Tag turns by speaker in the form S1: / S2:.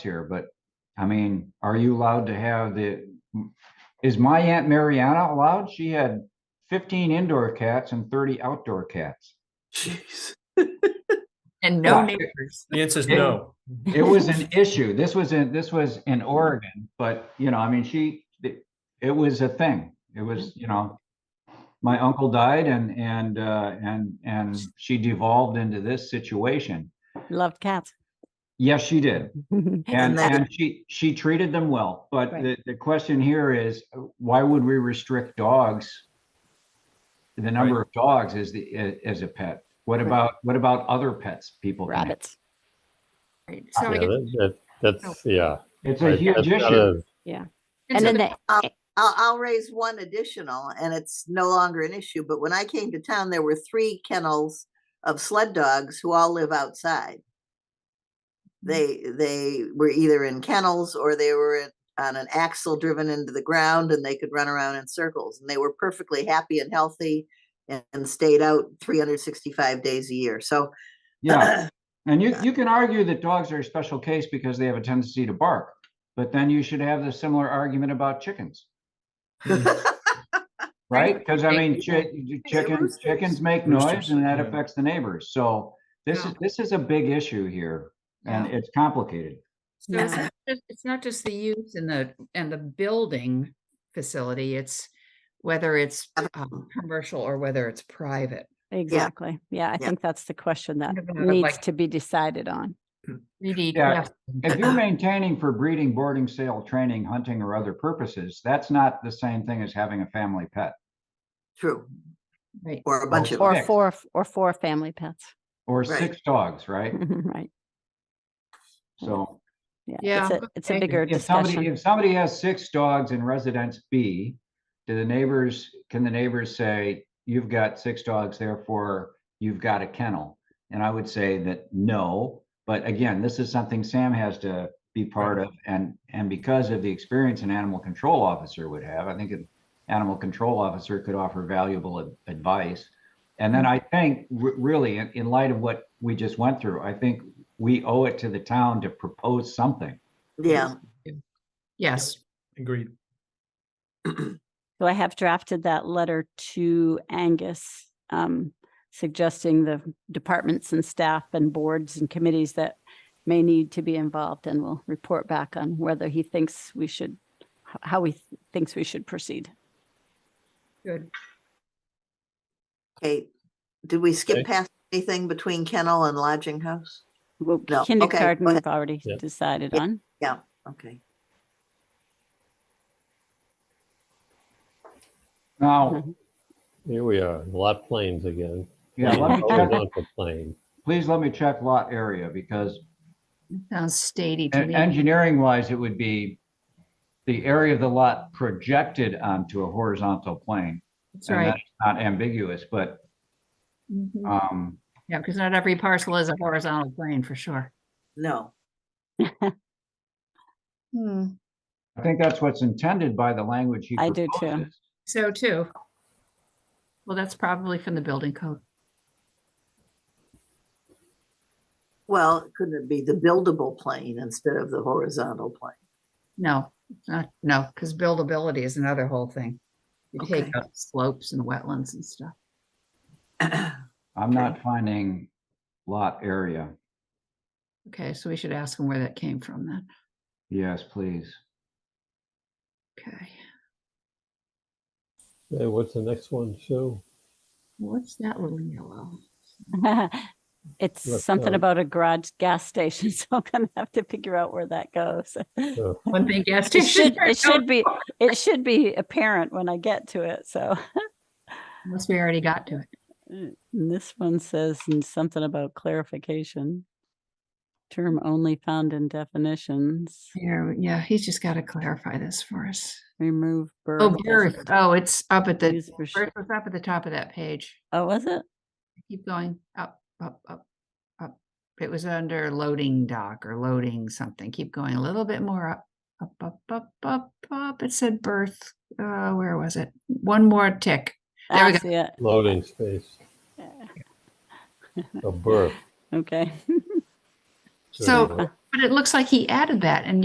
S1: here, but I mean, are you allowed to have the, is my Aunt Mariana allowed? She had fifteen indoor cats and thirty outdoor cats.
S2: Jeez.
S3: And no
S1: Yeah.
S3: neighbors.
S4: The answer is
S1: Yeah.
S4: no.
S1: It was an issue. This was in, this was in Oregon, but you know, I mean, she, it- it was a thing. It was, you know, my uncle died and, and, uh, and, and she devolved into this situation.
S5: Loved cats.
S1: Yes, she did. And,
S3: that-
S1: and she, she treated them well, but
S5: Right.
S1: the, the question here is, uh, why would we restrict dogs? The number of dogs as the, a- as a pet? What
S5: Right.
S1: about, what about other pets people can have?
S5: Rabbits.
S3: Right. So I
S6: Yeah,
S3: guess-
S6: that, that, that's, yeah.
S1: It's a
S6: Right,
S1: huge
S6: that's not
S1: issue.
S6: a-
S3: and so
S5: And then
S3: the-
S5: they,
S2: I'll, I'll raise one additional, and it's no longer an issue, but when I came to town, there were three kennels of sled dogs who all live outside. They, they were either in kennels or they were in- on an axle driven into the ground and they could run around in circles. And they were perfectly happy and healthy and and stayed out three hundred sixty-five days a year, so.
S1: Yeah. And you, you can argue that dogs are a special case because they have a tendency to bark. But then you should have the similar argument about chickens, right? Because I
S3: Right.
S1: mean, chi- chickens,
S2: roosters.
S1: chickens make noise
S4: Roosters,
S1: and that
S4: yeah.
S1: affects the neighbors. So this is,
S3: Yeah.
S1: this is a big issue here and
S3: Yeah.
S1: it's complicated.
S3: so it's
S5: Yeah.
S3: not just- It's not just the use and the, and the building facility, it's whether it's um, commercial or whether it's private.
S5: exactly. Yeah, I
S2: Yeah.
S5: think that's the question that
S3: Kind of another,
S5: needs
S3: like-
S5: to be decided on.
S3: Really,
S1: Yeah.
S3: yes.
S1: If you're maintaining for breeding, boarding, sale, training, hunting, or other purposes, that's not the same thing as having a family pet
S2: True,
S3: Right.
S2: or a bunch of,
S5: Or
S1: Correct.
S5: four, or four family pets.
S1: or
S2: Right.
S1: six dogs, right?
S5: Right.
S1: So
S5: Yeah,
S3: Yeah,
S5: it's a, it's a
S3: okay.
S5: bigger
S1: if somebody,
S5: discussion.
S1: if somebody has six dogs in residence B, do the neighbors, can the neighbors say, you've got six dogs, therefore you've got a kennel? And I would say that no, but again, this is something Sam has to be part of and, and because of the experience an animal control officer would have, I think an animal control officer could offer valuable ad- advice. And then I think re- really in, in light of what we just went through, I think we owe it to the town to propose something.
S2: yeah,
S3: Yes,
S4: Agreed.
S5: So I have drafted that letter to Angus, um, suggesting the departments and staff and boards and committees that may need to be involved and will report back on whether he thinks we should, h- how he th- thinks we should proceed.
S3: good.
S2: okay. Did we skip
S6: Okay.
S2: past anything between kennel and lodging house?
S5: Well,
S2: No, okay,
S5: kindergarten,
S2: go
S5: we've
S2: ahead.
S5: already
S6: Yeah.
S5: decided
S2: Yeah.
S5: on.
S2: Okay.
S1: Now,
S5: Mhm.
S6: Here we are, lot planes again.
S1: yeah, let me
S6: Always
S1: check,
S6: on the plane.
S1: please let me check lot area because
S3: Sounds statey to me.
S1: engineering wise, it would be the area of the lot projected onto a horizontal plane.
S3: That's
S1: and
S3: right.
S1: that's Not ambiguous, but,
S3: Mhm.
S5: Mm-hmm.
S1: um,
S3: Yeah, because not every parcel is a horizontal plane for sure.
S2: No,
S1: I think that's what's intended by the language he
S5: I do too.
S1: proposes.
S3: So too. Well, that's probably from the building code.
S2: well, couldn't it be the buildable plane instead of the horizontal plane?
S3: No, it's not, no, because buildability is another whole thing. You
S2: Okay.
S3: take out slopes and wetlands and stuff.
S1: I'm not finding lot area.
S3: Okay, so we should ask them where that came from then.
S1: Yes, please.
S3: Okay,
S6: Hey, what's the next one, Sue?
S3: what's that little yellow?
S5: It's
S6: Let's
S5: something
S6: go.
S5: about a garage gas station, so I'm gonna have to figure out where that goes.
S3: One thing gas
S5: It
S3: station.
S5: should, it should be, it should be apparent when I get to it, so.
S3: Unless we already got to it.
S5: And This one says n- something about clarification. Term only found in definitions,
S3: Here, yeah, he's just got to clarify this for us.
S5: remove birth.
S3: Oh,
S5: as
S3: birth.
S5: a
S3: Oh, it's up at the,
S5: use for sh-
S3: birth was up at the top of that page.
S5: Oh, was it?
S3: Keep going up, up, up, up. It was under loading dock or loading something. Keep going a little bit more up, up, up, up, up, up. It said birth. Uh, where was it? One more tick. There we
S5: Ah,
S3: go.
S5: see it.
S6: Loading space,
S5: Yeah,
S6: a berth.
S5: Okay.
S3: So-
S6: certainly.
S3: But it looks like he added that and